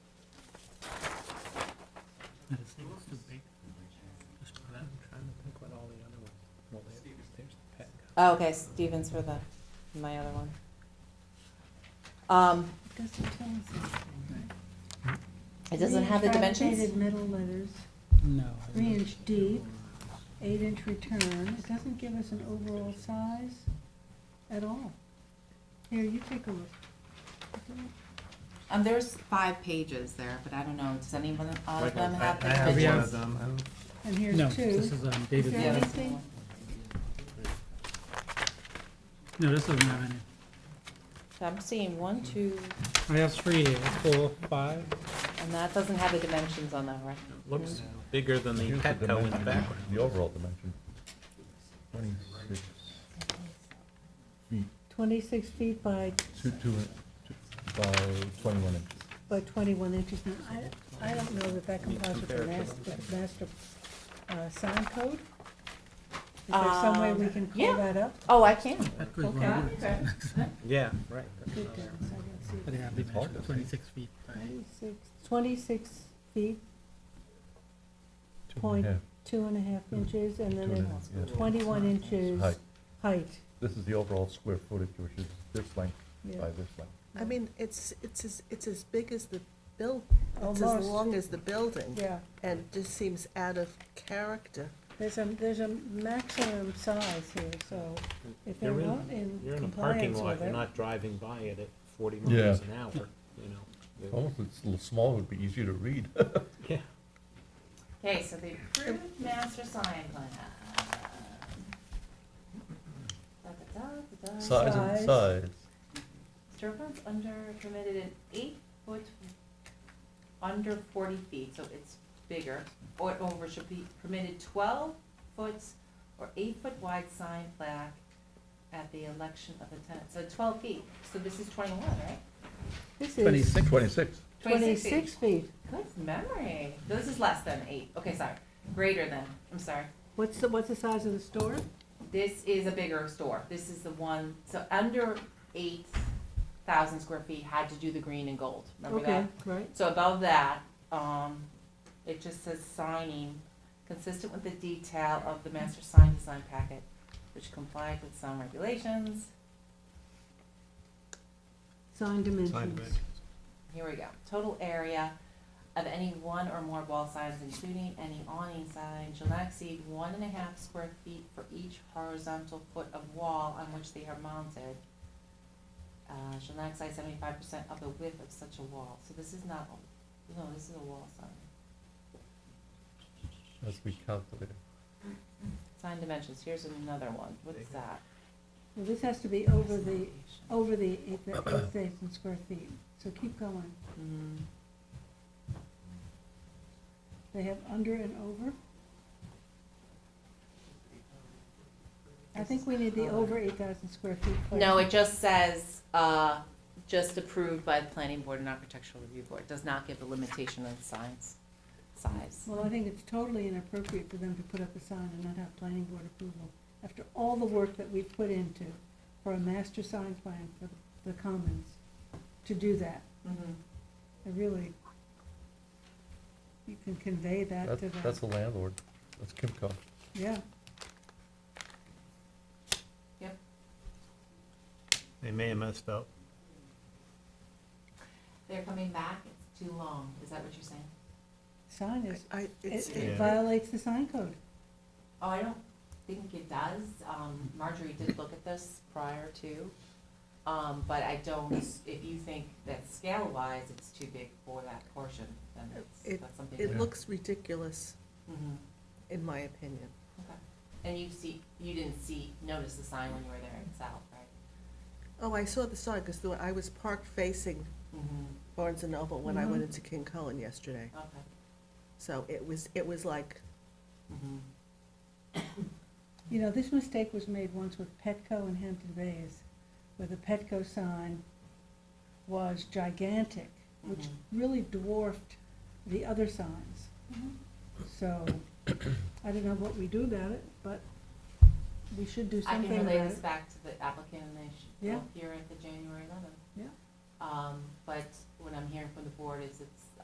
Oh, okay, Stevens for the, my other one. Um, Doesn't tell us anything. it doesn't have the dimensions? Fabricated metal letters, No. three inch deep, eight inch return, it doesn't give us an overall size at all. Here, you take a look. Um, there's five pages there, but I don't know, does anyone out of them I- have the I have one dimensions? of them. I don't- And here's No, two. this is um, David's. there Yeah, one. that's the anything? one. No, this doesn't have any. So I'm seeing one, two, I have three, four, five. and that doesn't have the dimensions on that, right? Looks bigger than the Here's the Petco in the dimension, background. The overall dimension. Twenty-six, Twenty-six feet by, two, two, two- by twenty-one inches. by twenty-one inches. Now, I, I don't know that that complies with the compare it to master, master, uh, sign code. Is there some way we Um, can call yeah. that up? Oh, I can. That goes Okay. wrong. Yeah, right. Good, I don't see But it. they have It's hard to dimensions, see. twenty-six feet. by- 26 26 feet, Two and a Point- half. two and a half inches, and then Two and a it's half, yeah. twenty-one inches Height. height. This is the overall square footage, which is this length Yeah. by this length. I mean, it's, it's, as it's as big as the buil, it's as Almost. long as the building. Yeah, And it just seems out of character. there's a, there's a maximum size here, so if they're You're in- not in You're in a parking compliance lot, with you're it. not driving by it at forty Yeah. Oh. miles an hour, you know. Almost it's a little small, would be easier to read. Yeah, Okay, so the approved master sign plan. Da-da-da-da-da. Size Size. and size. Disturbance under permitted in eight foot, under forty feet, so it's bigger, or over should be permitted twelve foot or eight foot wide sign plaque at the election of the tenant, so twelve feet, so this is twenty-one, right? This is Twenty-six. Twenty-six. feet. twenty-six feet. Good memory, this is less than eight, okay, sorry, greater than, I'm sorry. What's the, what's the size of the store? This is a bigger store, this is the one, so under eight thousand square feet had to do the green and gold, remember that? Okay, right. So above that, um, it just says signing, consistent with the detail of the master sign design packet, which complied with some regulations. Sign dimensions. Here we go. Total area of any one or more wall signs, including any awning sign, shall not exceed one and a half square feet for each horizontal foot of wall on which they are mounted. Uh, shall not exceed seventy-five percent of the width of such a wall. So this is not, a- no, this is a wall sign. Must be calculated. Sign dimensions, here's another one, what's that? Well, this has to be over the, oh. over the eight eight thousand square feet, so keep going. Mm, They have under and over. I think we need the over eight thousand square feet. No, it just says, uh, just approved by the planning board and architectural review board, does not give a limitation on signs, size. Well, I think it's totally inappropriate for them to put up a sign and not have planning board approval after all the work that we've put into for a master sign plan for the commons, to do that. Mhm. I really, you can convey that to That's, them. that's the landlord. That's Kimco. Yeah, they may have messed up. They're coming back, it's too long, is that what you're saying? sign is, I, it's, it- Yeah. it violates the sign code. Oh, I don't think it does, um, Marjorie did look at this prior to, um, but I don't, if you think that scale-wise, it's too big for that portion, then it's, It- that's something. it Yeah. looks ridiculous, Mhm. in my opinion. Okay, and you see, you didn't see, notice the sign when you were there in South, right? Oh, I saw the sign, because I was parked facing Mm-hmm. Barnes and Noble when I went Mhm. into King Cullen yesterday. Okay. So it was, it was like, Mm-hmm. You know, this mistake was made once with Petco in Hampton Bays, where the Petco sign was gigantic, which Mhm. really dwarfed the other signs. Mm-hmm. So, I don't know what we do about it, but we should do I something can about relay this it. back to the applicant and they should Yeah. go here at the January eleventh. Yeah. Um, but what I'm hearing from the board is it's